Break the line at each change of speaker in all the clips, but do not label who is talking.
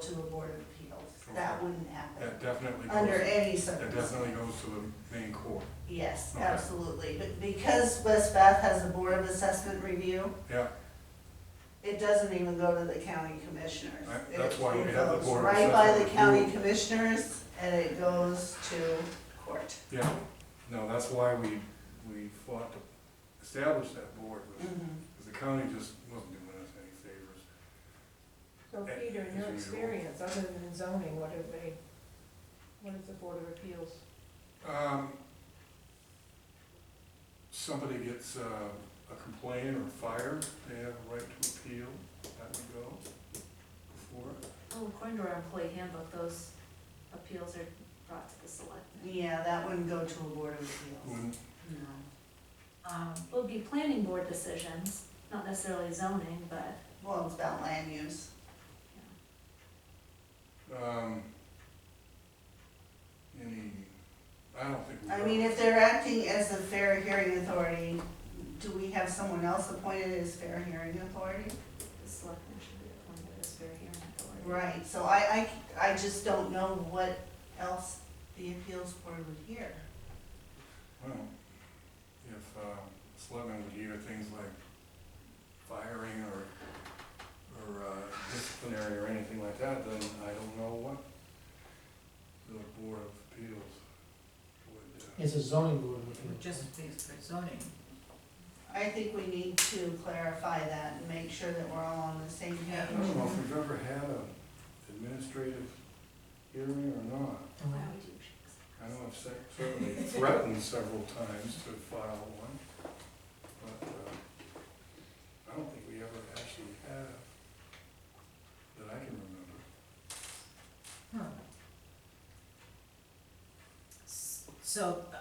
to a board of appeals. That
Okay.
wouldn't happen
That definitely
under
goes,
any
that
circumstance.
definitely goes to the main court.
Yes,
Okay.
absolutely. But because West Bath has a board of assessment review,
Yeah,
it doesn't even go to the county commissioners.
That- that's
It-
why we
it
have the
goes
Board of
Right by the
Assessment
county
review.
commissioners and it goes to court.
yeah. No, that's why we, we fought to establish that board,
Mm.
because the county just wasn't doing us any favors.
So Peter, in your experience, other than zoning, what have they, what is the Board of Appeals?
Um, somebody gets uh, a complaint or fired, they have a right to appeal, that would go before. it.
Well, according to our employee handbook, those appeals are brought to the selectmen.
Yeah, that wouldn't go to a board of appeals.
Wouldn't-
No.
Um, it would be planning board decisions, not necessarily zoning, but,
Well, it's about land use.
you
um, Any, I don't think we.
I mean, if they're acting as the fair hearing authority, do we have someone else appointed as fair hearing authority?
know, the selectmen should be appointed as fair hearing authority.
Right, so I, I, I just don't know what else the appeals board would hear.
Well, if uh, selectmen would hear things like firing or, or uh, disciplinary or anything like that, then I don't know what the Board of Appeals would. uh,
It's a zoning board, we can.
Just things for zoning.
I think we need to clarify that and make sure that we're all on the same
I
page.
don't know if we've ever had an administrative hearing or not.
Why
um,
would you choose?
I know I've cer- certainly threatened several times to file one, but uh, I don't think we ever actually have, that I can remember.
Huh. S- So, uh,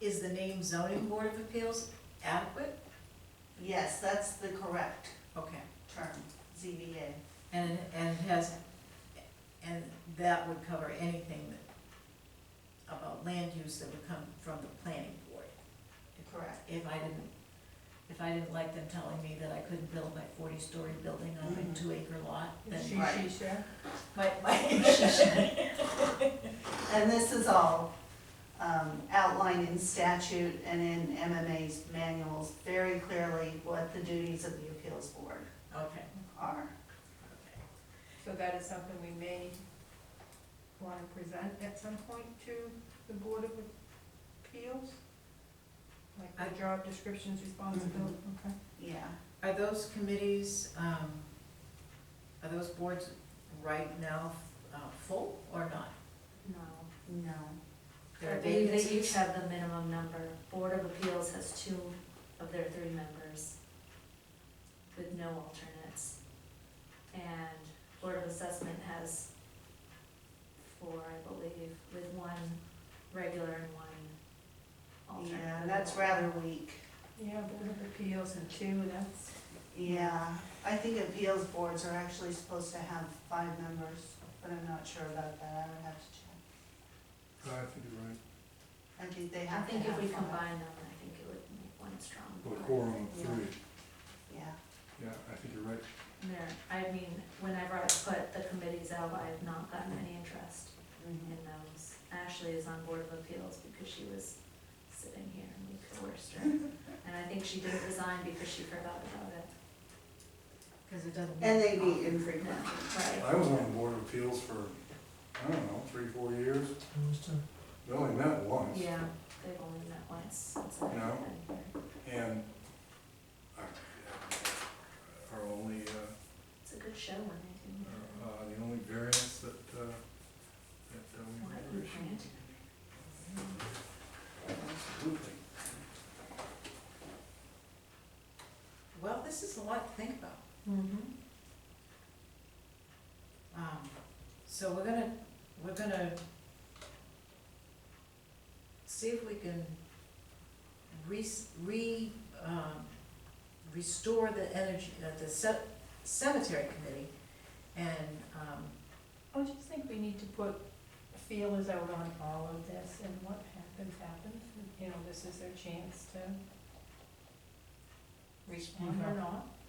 is the name zoning board of appeals adequate?
Yes, that's the correct
Okay,
term, ZBA.
and, and has, and that would cover anything that, about land use that would come from the planning board.
Correct.
If I didn't, if I didn't like them telling me that I couldn't build my forty-story building on
Mm-hmm.
Mhm.
my two-acre lot, then
She,
Right.
she, share?
my, my.
And this is all um, outlined in statute and in MMA's manuals very clearly what the duties of the appeals board
Okay.
are.
So that is something we may wanna present at some point to the Board of Appeals? Like
I- Mm-hmm.
the job descriptions, responsibility, okay?
Yeah.
Are those committees, um, are those boards right now, uh, full or not?
No.
No.
There
I
are
believe they each
vacancies?
have the minimum number. Board of Appeals has two of their three members with no alternates. And Board of Assessment has four, I believe, with one regular and one alternate.
Yeah, that's rather weak.
Yeah, Board of Appeals and two, that's,
Yeah, I think appeals boards are actually supposed to have five members, but I'm not sure about that. I would have to check.
Oh, I think you're right.
I think they
I
have to have
think
five.
if we combine them, I think it would make one strong
Well,
board.
quorum of
Yeah.
three,
Yeah.
yeah, I think you're right.
And There, I mean, whenever I put the committees out, I have not gotten any interest.
mhm.
in those. Ashley is on Board of Appeals because she was sitting here and we coerced her. And I think she did resign because she forgot about it.
Cause it doesn't.
And they meet infrequently.
Right.
I was on the Board of Appeals for, I don't know, three, four years,
almost done.
we only met once.
Yeah,
They've only met once since I've
No.
been here.
And our- our only, uh,
It's a good show when they do. meet.
our, uh, the only variance that, uh, that uh,
Why
we
you
were issued.
grant?
Absolutely.
well, this is a lot to think about.
mm-hmm.
Um, so we're gonna, we're gonna see if we can re, re, um, restore the energy, uh, the ce- cemetery committee and, um,
I just think we need to put feelers out on all of this and what happens, happens. You know, this is their chance to respond or not.